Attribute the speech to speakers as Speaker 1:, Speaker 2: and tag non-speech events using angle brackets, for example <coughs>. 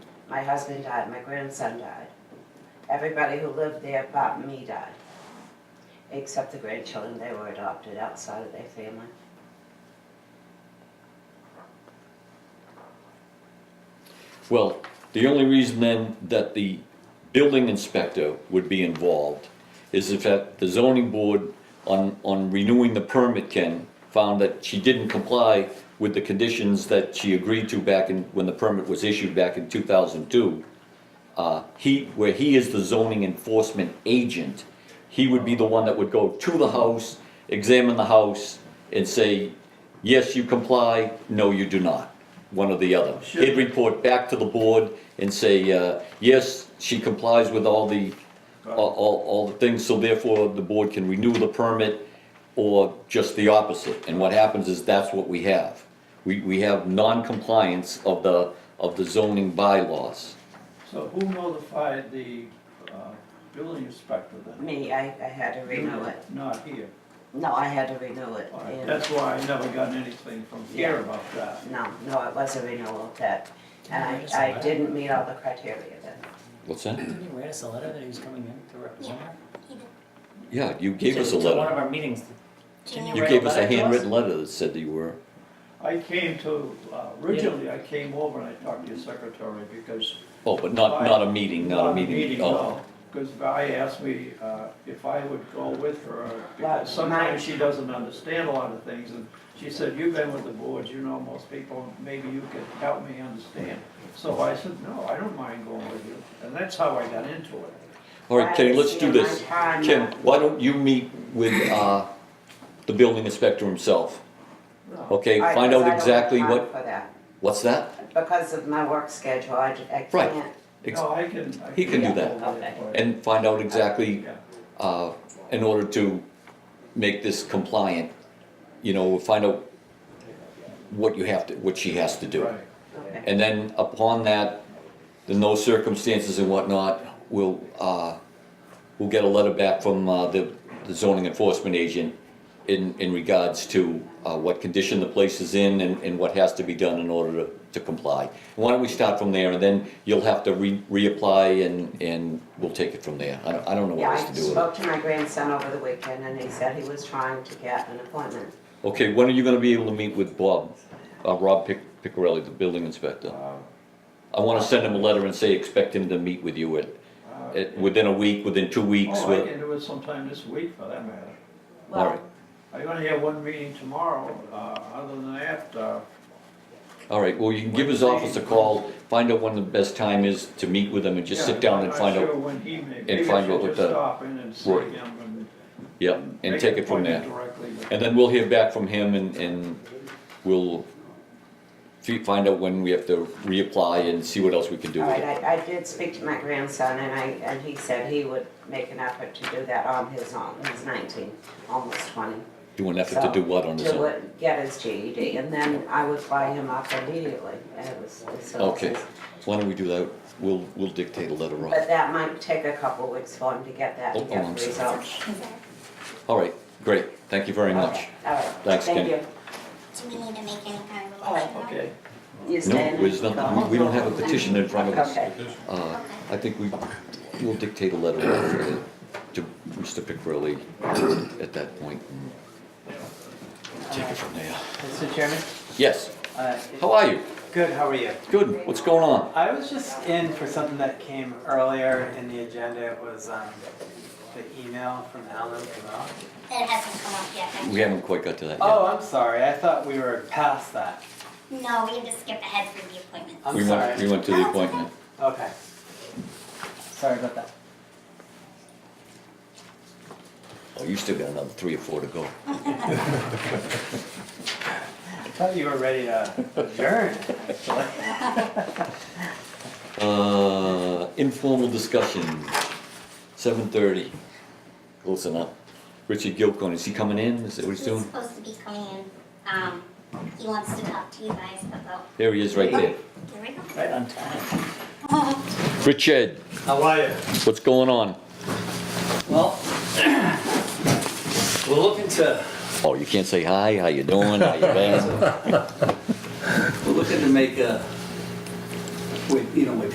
Speaker 1: My husband died, my grandson died. Everybody who lived there but me died. Except the grandchildren, they were adopted outside of their family.
Speaker 2: Well, the only reason then that the building inspector would be involved is if that the zoning board on, on renewing the permit, Ken, found that she didn't comply with the conditions that she agreed to back in, when the permit was issued back in two thousand two. Uh, he, where he is the zoning enforcement agent, he would be the one that would go to the house, examine the house, and say, yes, you comply, no, you do not, one or the other.
Speaker 3: Sure.
Speaker 2: He'd report back to the board and say, uh, yes, she complies with all the, all, all all the things, so therefore the board can renew the permit, or just the opposite, and what happens is that's what we have. We, we have non-compliance of the, of the zoning bylaws.
Speaker 3: So who notified the uh, building inspector then?
Speaker 1: Me, I, I had to renew it.
Speaker 3: Not here.
Speaker 1: No, I had to renew it.
Speaker 3: All right,
Speaker 1: and-
Speaker 3: That's why I never got anything from here about that.
Speaker 1: No, no, it was a renewal of that. And I, I didn't meet all the criteria then.
Speaker 2: What's that?
Speaker 4: Didn't you write us a letter that he was coming in to represent her?
Speaker 2: Yeah, you gave us a
Speaker 4: To- To one of
Speaker 2: letter.
Speaker 4: our meetings. Didn't
Speaker 2: You
Speaker 4: write
Speaker 2: gave us a
Speaker 4: letter to
Speaker 2: handwritten letter that said that you were,
Speaker 3: I came to, uh, originally I came over and I talked to your secretary because.
Speaker 2: oh, but not, not a meeting, not a meeting. Oh,
Speaker 3: no, because Vi asked me uh, if I would go with her,
Speaker 1: Well,
Speaker 3: because sometimes she doesn't understand a lot of things. And she said, you've been with the boards, you know most people, maybe you could help me understand. So I said, no, I don't mind going with you, and that's how I got into it.
Speaker 2: All right, Kenny, let's do this.
Speaker 1: Right, it's in my
Speaker 2: Ken,
Speaker 1: time.
Speaker 2: why don't you meet with, uh, the building inspector himself?
Speaker 3: No,
Speaker 2: Okay,
Speaker 1: I-
Speaker 2: find
Speaker 1: 'cause I
Speaker 2: out
Speaker 1: don't have
Speaker 2: exactly
Speaker 1: time
Speaker 2: what,
Speaker 1: For that,
Speaker 2: what's that?
Speaker 1: because of my work schedule, I, j- I
Speaker 2: Right.
Speaker 1: can't.
Speaker 2: Ex-
Speaker 3: No, I can. I
Speaker 2: He can do that.
Speaker 3: go with it for you.
Speaker 2: And find out exactly,
Speaker 3: Yeah.
Speaker 2: uh, in order to make this compliant, you know, find out what you have to, what she has to do.
Speaker 3: Right.
Speaker 1: Okay.
Speaker 2: And then upon that, the no circumstances and whatnot, we'll, uh, we'll get a letter back from, uh, the the zoning enforcement agent in, in regards to, uh, what condition the place is in and, and what has to be done in order to, to comply. Why don't we start from there and then you'll have to re, reapply and, and we'll take it from there. I, don't- I don't know
Speaker 1: Yeah,
Speaker 2: what else
Speaker 1: I
Speaker 2: to do with it.
Speaker 1: spoke to my grandson over the weekend and he said he was trying to get an appointment.
Speaker 2: Okay, when are you gonna be able to meet with Bob, uh, Rob Pic- Picarelli, the building inspector?
Speaker 3: Uh,
Speaker 2: I wanna send him a letter and say, expect him to meet with you at,
Speaker 3: uh,
Speaker 2: it, within a week, within two weeks,
Speaker 3: Oh, I
Speaker 2: we're-
Speaker 3: can do it sometime this week for that matter.
Speaker 2: All right.
Speaker 3: I only have one meeting tomorrow, uh, other than that, uh,
Speaker 2: all right, well, you can give his office a call, find out when the best time is to meet with him and just
Speaker 3: Yeah,
Speaker 2: sit down and find
Speaker 3: I'm not sure
Speaker 2: out,
Speaker 3: when he may, maybe
Speaker 2: find
Speaker 3: I
Speaker 2: out
Speaker 3: should
Speaker 2: what
Speaker 3: just
Speaker 2: the-
Speaker 3: stop in and see
Speaker 2: Right.
Speaker 3: him and.
Speaker 2: yeah, and
Speaker 3: make
Speaker 2: take
Speaker 3: an
Speaker 2: it from there.
Speaker 3: appointment directly with-
Speaker 2: And then we'll hear back from him and, and we'll fi- find out when we have to reapply and see what else we can do
Speaker 1: All
Speaker 2: with
Speaker 1: right,
Speaker 2: it.
Speaker 1: I, I did speak to my grandson and I, and he said he would make an effort to do that on his own. He's nineteen, almost twenty.
Speaker 2: Do an effort to do what on his
Speaker 1: To
Speaker 2: own?
Speaker 1: what- get his GED and then I would fly him up immediately. And it was- it was-
Speaker 2: Okay, why don't we do that, we'll, we'll dictate a letter
Speaker 1: But
Speaker 2: off.
Speaker 1: that might take a couple weeks for him to get that
Speaker 2: Oh,
Speaker 1: and
Speaker 2: oh, I'm
Speaker 1: get the
Speaker 2: sorry.
Speaker 1: results.
Speaker 2: All right, great, thank you very much.
Speaker 1: Okay, All right.
Speaker 2: Thanks,
Speaker 1: Thank
Speaker 2: Ken.
Speaker 1: you.
Speaker 5: Do we need to make any kind of a
Speaker 1: Oh,
Speaker 5: motion?
Speaker 3: Okay,
Speaker 1: You
Speaker 2: No,
Speaker 1: staying?
Speaker 2: there's nothing, we don't have a petition in front of us.
Speaker 1: Okay.
Speaker 2: Uh, I think we, we'll dictate a letter over to Mr. Picrelli at that point and take it from there.
Speaker 6: Mr. Chairman?
Speaker 2: Yes,
Speaker 6: Uh,
Speaker 2: how are you?
Speaker 6: Good, how are you?
Speaker 2: Good, what's going on?
Speaker 6: I was just in for something that came earlier in the agenda. It was um, the email from Alan Kamel.
Speaker 5: It hasn't come up yet.
Speaker 2: We haven't quite got to that yet.
Speaker 6: Oh, I'm sorry. I thought we were past that.
Speaker 5: No, we have to skip ahead through the appointments.
Speaker 6: I'm
Speaker 2: We went, we
Speaker 6: sorry.
Speaker 2: went to the appointment.
Speaker 6: Okay. Sorry about that.
Speaker 2: Oh, you still got another three or four to go.
Speaker 6: I thought you were ready to adjourn. actually.
Speaker 2: Uh, informal discussion, seven thirty. Close enough. Richard Gilcon, is he coming in? Is that what he's
Speaker 5: He's
Speaker 2: doing?
Speaker 5: supposed to be coming in. Um, he wants to talk to you guys about,
Speaker 2: There he is, right there.
Speaker 5: there we go.
Speaker 6: Right on time.
Speaker 5: <laughs>
Speaker 2: Richard,
Speaker 6: How are you?
Speaker 2: what's going on?
Speaker 6: Well, <coughs> we're looking to,
Speaker 2: Oh, you can't say hi, how you doing, how you
Speaker 6: <laughs>
Speaker 2: been?
Speaker 6: we're looking to make a, we, you know, we